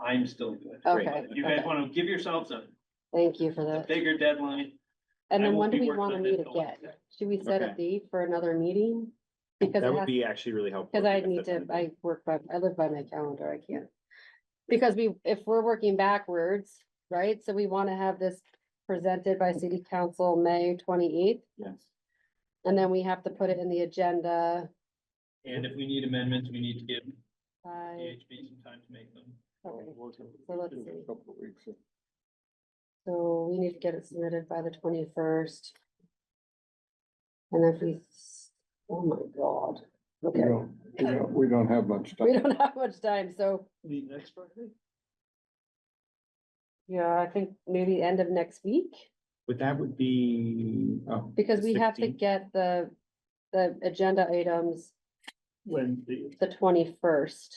I'm still good. Okay, If you guys okay. wanna give yourselves a, Thank you for a that. bigger deadline, And I then will when do be we working wanna on meet this till again? Wednesday. Should we set a Okay. date for another meeting? Because That it would has- be actually really helpful. Cause I if need that's to, something- I work by, I live by my calendar, I can't. Because we, if we're working backwards, right, so we wanna have this presented by city council May twenty-eighth. Yes. And then we have to put it in the agenda and if we need amendments, we need to give by, DHB some time to make them. okay, so let's see. So we need to get it submitted by the twenty-first. And if we, s- oh my god, We okay, don't, we don't- we don't have much we time. don't have much time, so, Meet next Friday? yeah, I think maybe end of next week. But that would be, oh. Because the we have to 16th? get the, the agenda items When the. the twenty-first.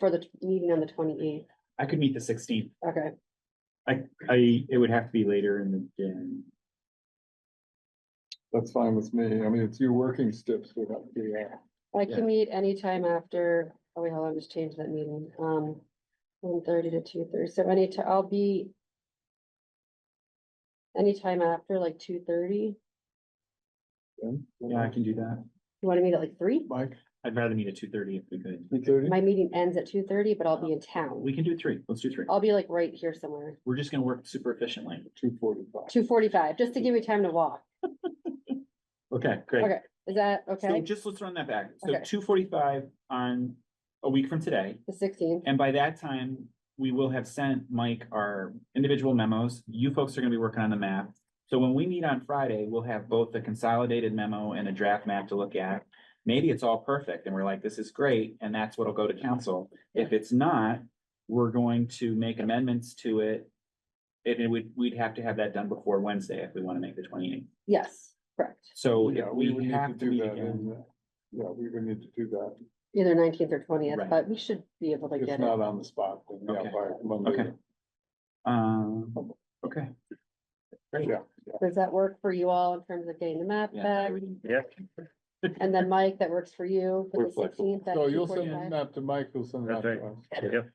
For the t- meeting on the twenty-eighth, I could meet the sixteenth. okay, I, I, it would have to be later in the day. That's fine with me. I mean, it's you working stips. We don't do that. I Yeah. can meet anytime after, oh wait, hold on, just change that meeting, um. One thirty to two thirty, so any ti- I'll be. Anytime after like two thirty, Yeah, I can do that. you wanna meet at like Mm-hmm. three? Mike, I'd rather meet at two thirty if we could. you thirty? My meeting ends at two thirty, but I'll be in town, We can do three. Let's do three. I'll be like right here somewhere, We're just gonna work super efficiently. Two forty-five. two forty-five, just to give me time to walk, Okay, great. Okay, is that So okay? just let's run that back. So Okay. two forty-five on a week from today. The sixteenth, And by that time, we will have sent Mike our individual memos. You folks are gonna be working on the map. So when we meet on Friday, we'll have both the consolidated memo and a draft map to look at. Maybe it's all perfect and we're like, this is great, and that's what'll go to council. If it's not, we're going to make amendments to it. And it would, we'd have to have that done before Wednesday if we wanna make the twenty eighth. yes, correct. So Yeah, if we would we need to have to do meet that. again, in, uh, Yeah, we would need to do that. Either nineteenth or twentieth, Right. but we should be able to If get it. not on the spot, then yeah, Okay. by Monday. Okay. um, okay. Great. Yeah, yeah. Does that work for you all in terms of getting the map Yeah. back? And then Mike, that works for you for We're the flexible. sixteenth? So you'll send the map to Mike, who'll send it out That's to us. Yep,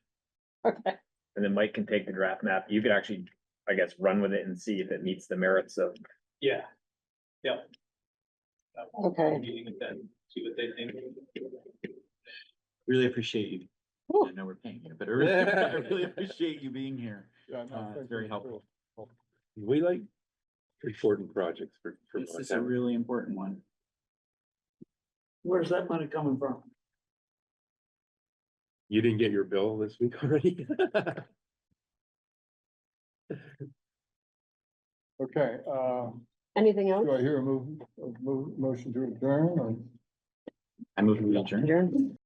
Okay, and then Mike can take the draft map. You could actually, I guess, run with it and see if it meets the merits of. Yeah, yep. That will be Okay. Meeting with them, see what they think. Really appreciate you. Whew. I know we're paying you, but I really, I really appreciate you being here. Yeah, no, Uh, it's thank very you. helpful. We like important projects for. for This my is a town. really important one. Where's that money coming from? You didn't get your bill this week already? Okay, uh, anything do I else? hear a move, a move, motion to adjourn or? I move to adjourn. Adjourn?